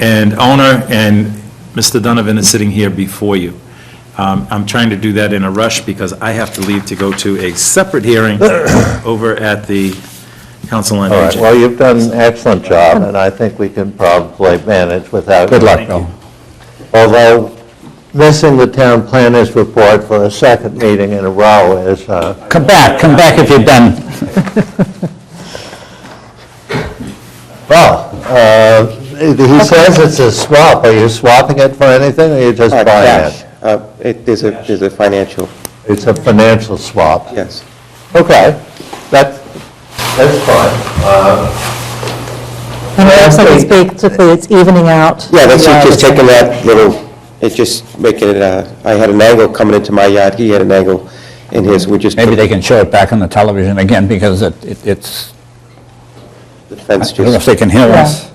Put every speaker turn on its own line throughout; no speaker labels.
and owner, and Mr. Donovan is sitting here before you. Um, I'm trying to do that in a rush because I have to leave to go to a separate hearing over at the Council on
All right,
Aging.
well, you've done an excellent job, and I think we can probably manage without... Good luck, Bill. Although missing the town planners report for a second meeting in a row is, uh,
Come back, come back if you're done.
well, uh, he says it's a swap. Are you swapping it for anything, or you just
Uh,
buying
Cash.
it?
Uh, It is a, is a financial,
It's a financial swap.
yes.
Okay, that's, that's fine.
And it looks like it's basically, it's evening out.
Yeah, that's
the,
it,
uh,
just
the-
taking that little, it just making it, uh, I had an angle coming into my yard, he had an angle in his, we just.
Maybe they can show it back on the television again, because it it- it's,
The fence
I don't know if
just,
they can hear us.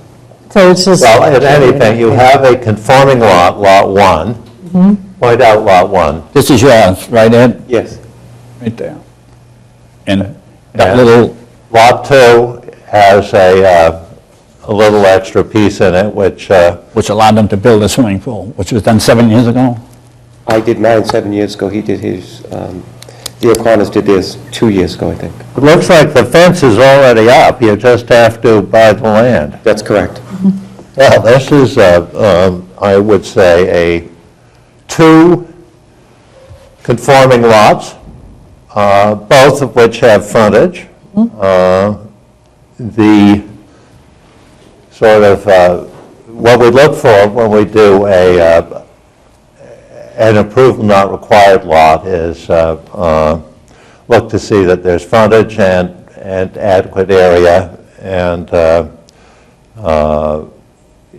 So it's just,
Well, in any event, you have a conforming lot, Lot 1. Point out Lot 1.
This is yours, right, Ed?
yes,
Right there. And that
Yeah.
little,
Lot 2 has a, uh, a little extra piece in it, which, uh,
which allowed them to build a swimming pool, which was done seven years ago?
I did mine seven years ago, he did his, um, the O'Connors did theirs two years ago, I think.
it looks like the fence is already up, you just have to buy the land.
That's correct.
Well, this is, uh, um, I would say, a two conforming lots, uh, both of which have frontage. Uh, The sort of, uh, what we look for when we do a, uh, an approval not required lot is uh, uh, look to see that there's frontage and and adequate area, and uh,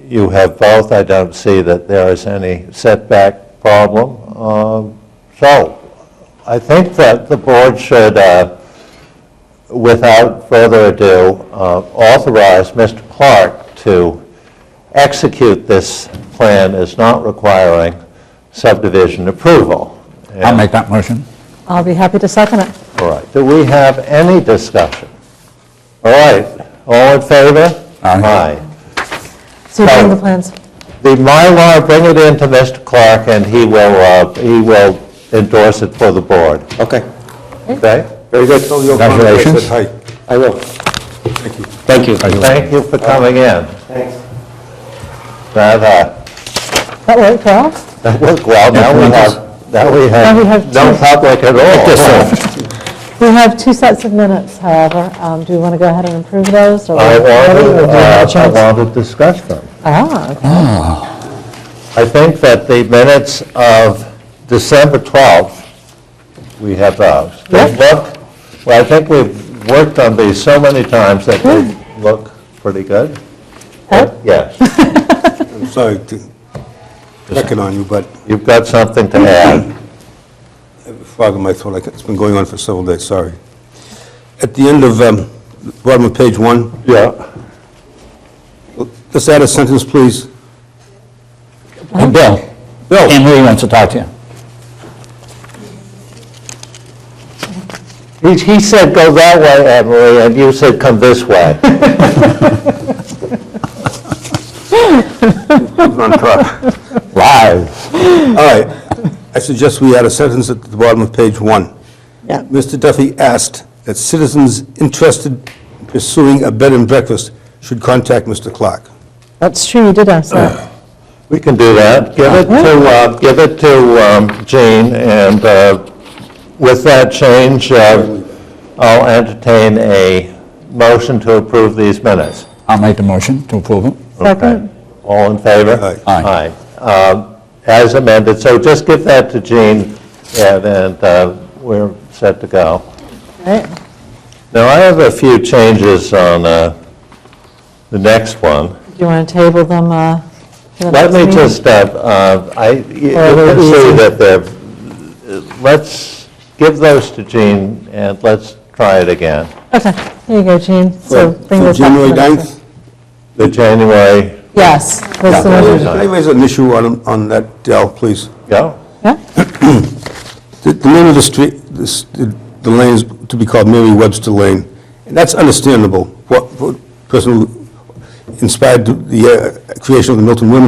you have both, I don't see that there is any setback problem. Um, So, I think that the board should, uh, without further ado, uh, authorize Mr. Clark to execute this plan as not requiring subdivision approval.
I'll make that motion.
I'll be happy to second it.
All right, do we have any discussion? All right, all in favor?
Aye.
So you bring
So-
the plans.
The Mylar, bring it in to Mr. Clark, and he will, uh, he will endorse it for the board,
Okay,
okay?
very good.
Congratulations.
I will.
Thank you.
Thank you for coming in.
Thanks.
That, uh,
That worked well?
that worked well, now we have, now we
Now we
have
have
no
two.
public at all.
We have two sets of minutes, however. Um, Do we want to go ahead and approve those? or-
I
Or do
wanted,
we have a
uh, I
chance?
wanted to discuss them.
Ah, okay.
I think that the minutes of December 12th, we have those. They look, well, I think we've worked on these so many times that they look pretty good.
Huh?
Yes.
I'm sorry to reckon on you, but
You've got something to add.
frog in my throat, like it's been going on for several days, sorry. At the end of, um, bottom of page one,
Yeah.
just add a sentence, please.
Hey, Bill.
Bill.
Anne Marie wants to talk to you.
He he said, "Go that way, Emily," and you said, "Come this way." Live.
All right. I suggest we add a sentence at the bottom of page one.
Yeah.
Mr. Duffy asked that citizens interested in pursuing a bed and breakfast should contact Mr. Clark.
That's true, you did ask that.
We can do that. Give it to, uh, give it to um, Jean, and uh, with that change, uh, I'll entertain a motion to approve these minutes.
I'll make the motion to approve it.
Second?
All in favor?
Aye.
Aye.
Aye. Um, As amended, so just give that to Jean, and and, uh, we're set to go.
Right.
Now, I have a few changes on uh, the next one.
Do you want to table them uh, for the
Let
next
me
meeting?
just, uh, uh, I, you you
Oh,
can see
easy.
that they're, let's give those to Jean, and let's try it again.
Okay, here you go, Jean. So bring
For
this up.
January
for the next
9th?
The January,
Yes. that's the
Can
one.
January
you raise an issue on, on that, Dell, please?
go.
Yeah?
The the name of the street, this- the the lane is to be called Mary Webster Lane, and that's understandable. What what person, who- inspired the uh, creation of the Milton Women's